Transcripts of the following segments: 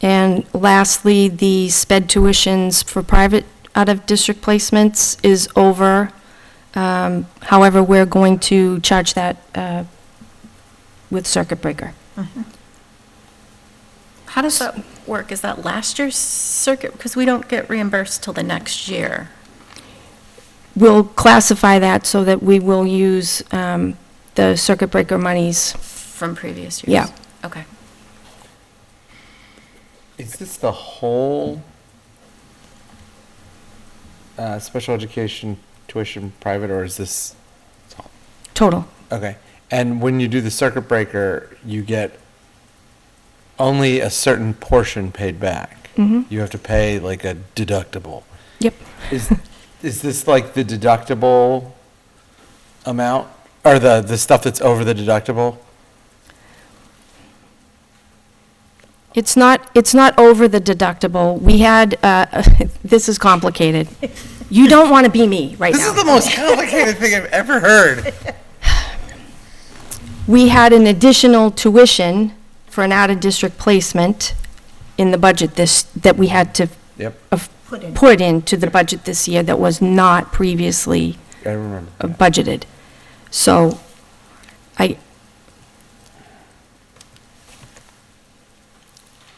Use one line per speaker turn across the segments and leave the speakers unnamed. And lastly, the sped tuitions for private out-of-district placements is over. Um, However, we're going to charge that uh, with circuit breaker.
Mm-hmm. How does that work? Is that last year's circuit? Because we don't get reimbursed till the next year.
We'll classify that so that we will use um, the circuit breaker monies.
From previous years?
Yeah.
Okay.
Is this the whole uh, special education tuition private, or is this
Total.
okay? And when you do the circuit breaker, you get only a certain portion paid back. You have to pay like a deductible.
Yep.
Is is this like the deductible amount, or the the stuff that's over the deductible?
It's not, it's not over the deductible. We had, uh, this is complicated. You don't want to be me right now.
This is the most complicated thing I've ever heard.
We had an additional tuition for an out-of-district placement in the budget this, that we had to
Yep,
of- put into the budget this year that was not previously
I remember.
uh, budgeted. So I,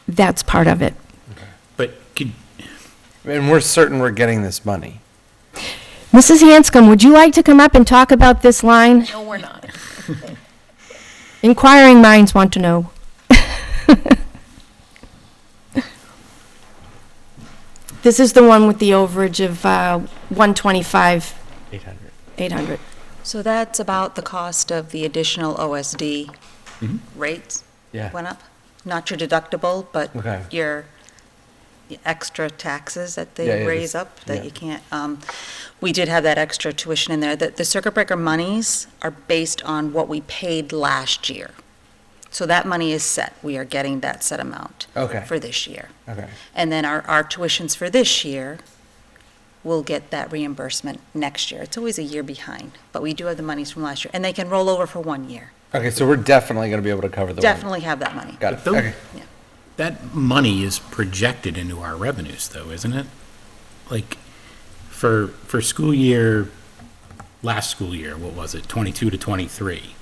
that's part of it.
But could,
And we're certain we're getting this money.
Mrs. Hanscom, would you like to come up and talk about this line?
No, we're not.
Inquiring minds want to know. This is the one with the overage of uh, 125,
Eight hundred.
800.
So that's about the cost of the additional OSD rates?
Mm-hmm. Yeah.
Went up? Not your deductible, but
Okay.
your your extra taxes that
Yeah, yeah,
they raise
just-
up, that
yeah.
you can't, um, we did have that extra tuition in there. The the circuit breaker monies are based on what we paid last year. So that money is set. We are getting that set amount.
Okay.
For this year.
Okay.
And then our, our tuitions for this year will get that reimbursement next year. It's always a year behind, but we do have the monies from last year, and they can roll over for one year.
Okay, so we're definitely going to be able to cover the. one-
Definitely have that money.
Got
But
it.
those-
Okay.
that money is projected into our revenues though, isn't it? Like, for, for school year, last school year, what was it, 22 to 23?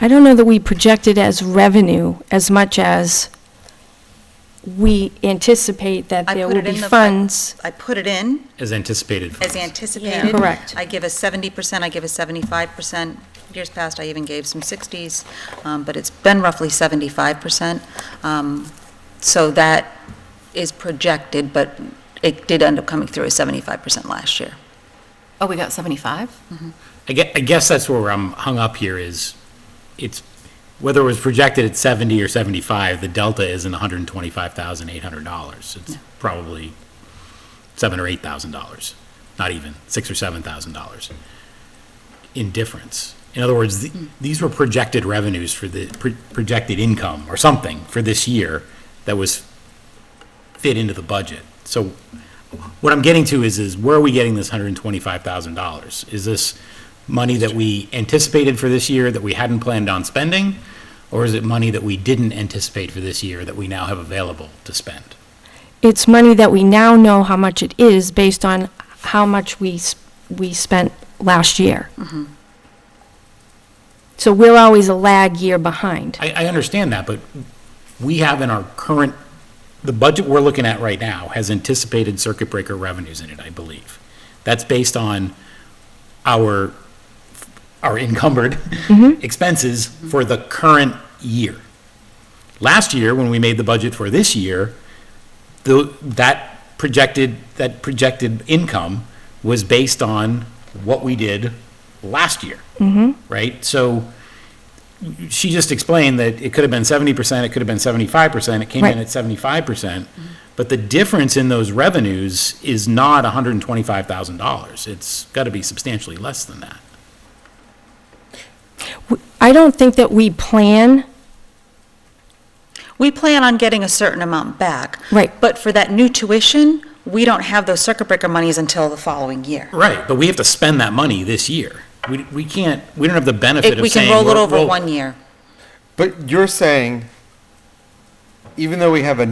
I don't know that we project it as revenue as much as we anticipate that
I
there
put
will
it in
be
the- I-
funds.
I put it in
As anticipated
as
funds.
anticipated.
Correct.
I give a seventy percent, I give a seventy-five percent. Years past, I even gave some sixties, um, but it's been roughly seventy-five percent. Um, so that is projected, but it did end up coming through as seventy-five percent last year.
Oh, we got 75?
I guess, I guess that's where I'm hung up here is, it's, whether it was projected at 70 or 75, the delta isn't $125,800. It's probably seven or $8,000, not even, six or $7,000 in difference. In other words, th- these were projected revenues for the, pro- projected income or something for this year that was fit into the budget. So what I'm getting to is, is where are we getting this hundred and twenty-five thousand dollars? Is this money that we anticipated for this year that we hadn't planned on spending? Or is it money that we didn't anticipate for this year that we now have available to spend?
It's money that we now know how much it is based on how much we, s- we spent last year.
Mm-hmm.
So we're always a lag year behind.
I, I understand that, but we have in our current, the budget we're looking at right now has anticipated circuit breaker revenues in it, I believe. That's based on our, our encumbered expenses for the current year. Last year, when we made the budget for this year, the, that projected, that projected income was based on what we did last year. Right? So she just explained that it could have been seventy percent, it could have been seventy-five percent, it came
Right.
in at seventy-five percent.
Mm-hmm.
But the difference in those revenues is not hundred and twenty-five thousand dollars. It's gotta be substantially less than that.
I don't think that we plan,
We plan on getting a certain amount back.
Right.
But for that new tuition, we don't have those circuit breaker monies until the following year.
Right, but we have to spend that money this year. We, we can't, we don't have the benefit
It-
of
We can
saying.
roll it
we're-
over
we'll-
one year.
But you're saying, even though we have a